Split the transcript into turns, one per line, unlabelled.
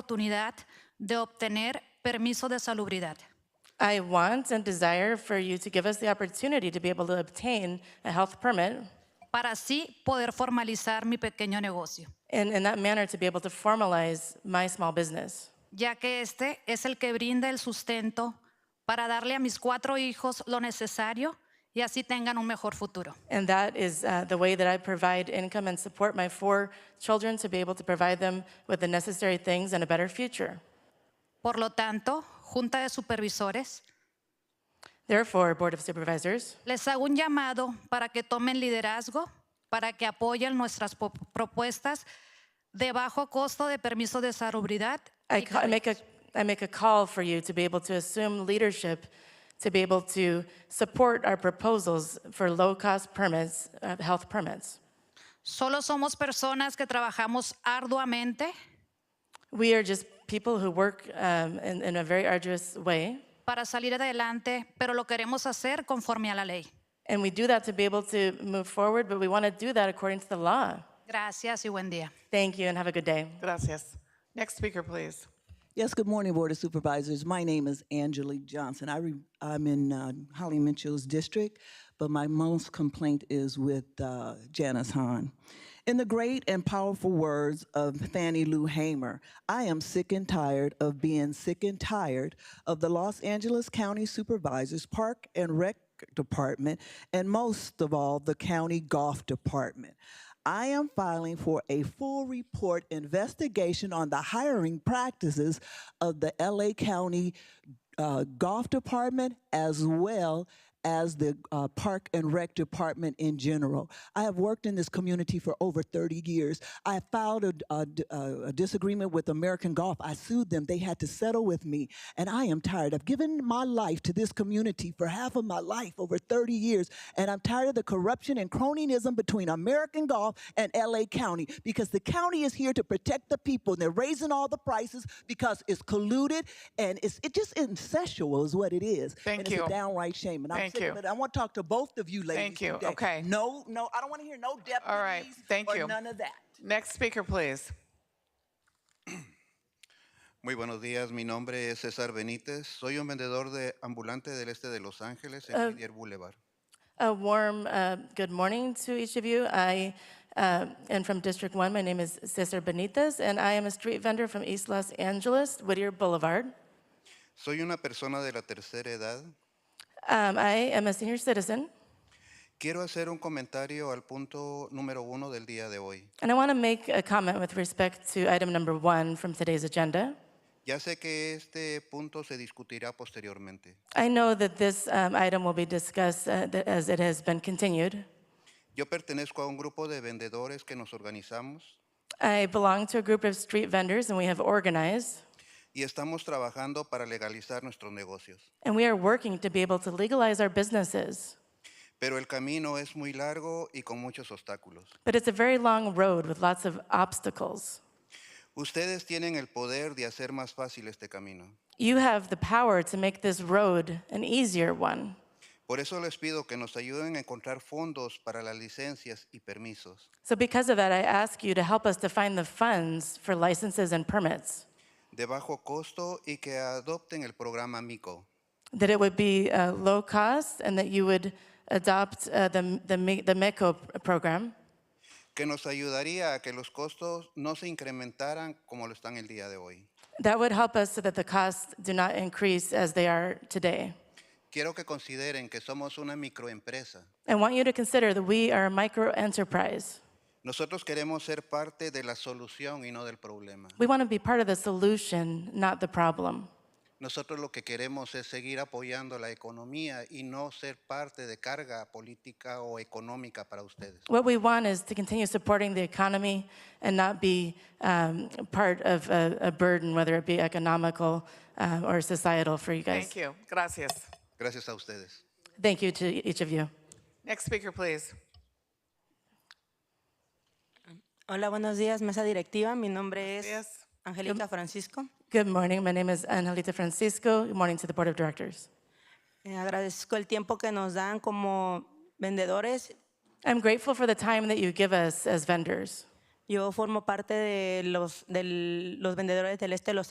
oportunidad de obtener permiso de salubridad.
I want and desire for you to give us the opportunity to be able to obtain a health permit
para así poder formalizar mi pequeño negocio,
and in that manner to be able to formalize my small business.
ya que este es el que brinda el sustento para darle a mis cuatro hijos lo necesario y así tengan un mejor futuro.
And that is uh, the way that I provide income and support my four children to be able to provide them with the necessary things and a better future.
Por lo tanto, Junta de Supervisores,
Therefore, Board of Supervisors,
les hago un llamado para que tomen liderazgo, para que apoyen nuestras po- propuestas de bajo costo de permiso de salubridad.
I,
y
ca- I make a, I make a call for you to be able to assume leadership, to be able to support our proposals for low-cost permits, uh, health permits.
Solo somos personas que trabajamos arduamente
We are just people who work um, in, in a very arduous way,
para salir adelante, pero lo queremos hacer conforme a la ley.
and we do that to be able to move forward, but we want to do that according to the law.
Gracias y buen día.
Thank you, and have a good day.
Gracias. Next speaker, please.
Yes, good morning, Board of Supervisors. My name is Angelique Johnson. I re, I'm in uh, Holly Mitchell's district, but my most complaint is with uh, Janice Hahn. In the great and powerful words of Fannie Lou Hamer, I am sick and tired of being sick and tired of the Los Angeles County Supervisors Park and Rec Department, and most of all, the County Golf Department. I am filing for a full report investigation on the hiring practices of the LA County uh, Golf Department as well as the uh, Park and Rec Department in general. I have worked in this community for over 30 years. I filed a, d- a uh, d- a- a disagreement with American Golf. I sued them. They had to settle with me. And I am tired. I've given my life to this community for half of my life, over 30 years. And I'm tired of the corruption and cronyism between American Golf and LA County because the county is here to protect the people. And they're raising all the prices because it's colluded and it's it just incestual is what it is.
Thank
and It's
you.
a downright shame. And I'm
Thank
sick
you.
of it. I want to talk to both of you ladies.
Thank you.
today.
Okay.
No, no, I don't want to hear no deputies
All right. Thank
or
you.
none of that.
Next speaker, please.
Muy buenos días, mi nombre es César Benítez, soy un vendedor de ambulante del este de Los Ángeles en Whittier Boulevard.
A warm uh, good morning to each of you. I uh, am from District 1. My name is Cesar Benitez, and I am a street vendor from East Los Angeles, Whittier Boulevard.
Soy una persona de la tercera edad.
Um, I am a senior citizen,
Quiero hacer un comentario al punto número uno del día de hoy.
and I want to make a comment with respect to item number one from today's agenda.
Ya sé que este punto se discutirá posteriormente.
I know that this um, item will be discussed uh, th- as it has been continued.
Yo pertenezco a un grupo de vendedores que nos organizamos
I belong to a group of street vendors, and we have organized,
y estamos trabajando para legalizar nuestros negocios.
and we are working to be able to legalize our businesses.
Pero el camino es muy largo y con muchos obstáculos.
But it's a very long road with lots of obstacles.
Ustedes tienen el poder de hacer más fácil este camino.
You have the power to make this road an easier one.
Por eso les pido que nos ayuden a encontrar fondos para las licencias y permisos.
So, because of that, I ask you to help us to find the funds for licenses and permits,
de bajo costo y que adopten el programa MICO.
that it would be uh, low cost, and that you would adopt uh, the, the, Mi- the MECO program.
que nos ayudaría a que los costos no se incrementaran como lo están el día de hoy.
That would help us so that the costs do not increase as they are today.
Quiero que consideren que somos una microempresa.
I want you to consider that we are a micro enterprise.
Nosotros queremos ser parte de la solución y no del problema.
We want to be part of the solution, not the problem.
Nosotros lo que queremos es seguir apoyando la economía y no ser parte de carga política o económica para ustedes.
What we want is to continue supporting the economy and not be um, part of a, a burden, whether it be economical um, or societal for you guys.
Thank you. Gracias.
Gracias a ustedes.
Thank you to each of you.
Next speaker, please.
Hola, buenos días, mesa directiva. Mi nombre es
días.
Angélica Francisco.
Good morning. My name is Angelita Francisco. Good morning to the Board of Directors.
Eh, agradezco el tiempo que nos dan como vendedores
I'm grateful for the time that you give us as vendors.
Yo formo parte de los, del- los vendedores del este de Los